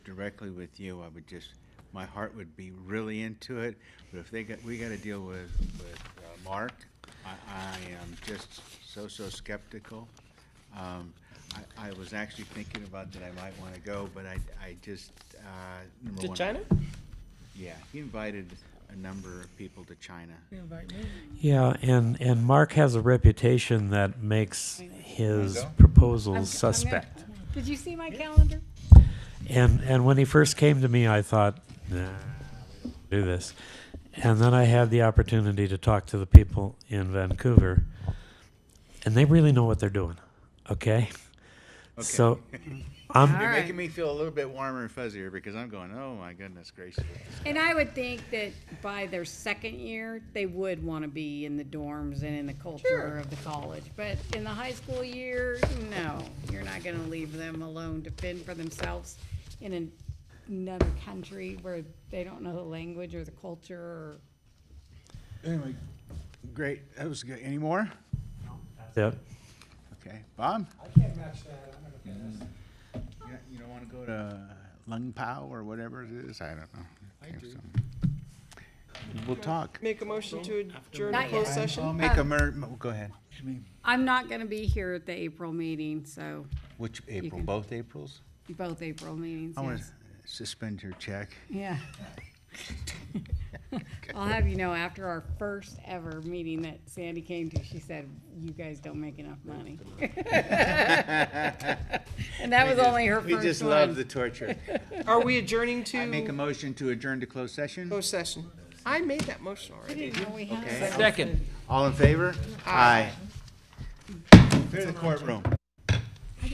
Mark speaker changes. Speaker 1: directly with you, I would just, my heart would be really into it. But if they got, we gotta deal with, with uh, Mark, I, I am just so, so skeptical. Um, I, I was actually thinking about that I might wanna go, but I, I just, uh, number
Speaker 2: To
Speaker 1: one.
Speaker 2: China?
Speaker 1: Yeah, he invited a number of people to China.
Speaker 3: Yeah, and, and Mark has a reputation that makes his proposals suspect.
Speaker 4: Did you see my calendar?
Speaker 3: And, and when he first came to me, I thought, nah, we don't do this. And then I had the opportunity to talk to the people in Vancouver, and they really know what they're doing, okay? So, I'm,
Speaker 1: You're
Speaker 4: All right.
Speaker 1: making me feel a little bit warmer and fuzzier because I'm going, oh my goodness gracious.
Speaker 4: And I would think that by their second year, they would want to be in the dorms and in the culture of the college. But in the high school year, no, you're not going to leave them alone to fend for themselves in an- another country where they don't know the language or the culture or
Speaker 1: Anyway, great, that was good. Any more?
Speaker 3: that-
Speaker 1: Okay, Bob?
Speaker 5: I can't match that, I'm gonna pass.
Speaker 1: You don't- You don't want to go to Lung Pao or whatever it is? I don't know. I do. We'll talk.
Speaker 2: Make a motion to adjourn
Speaker 4: Not
Speaker 2: to closed
Speaker 4: yet.
Speaker 1: I'll
Speaker 2: session?
Speaker 1: make
Speaker 4: Um,
Speaker 1: a mer, mo- go ahead.
Speaker 4: I'm not going to be here at the April meeting, so
Speaker 1: Which April,
Speaker 4: can-
Speaker 1: both Aprils?
Speaker 4: both April meetings.
Speaker 1: I want to
Speaker 4: yes.
Speaker 1: suspend your check.
Speaker 4: Yeah. I'll have you know, after our first ever meeting that Sandy came to, she said, you guys don't make enough money. And that was only her
Speaker 1: We just
Speaker 4: first
Speaker 1: love the
Speaker 4: one.
Speaker 1: torture.
Speaker 2: Are we adjourning
Speaker 1: I make a
Speaker 2: to
Speaker 1: motion to adjourn to closed session?
Speaker 2: closed session? I made that motion already.
Speaker 4: Didn't know we had-
Speaker 1: Okay.
Speaker 2: Second.
Speaker 1: All in favor? Aye. Clear the courtroom.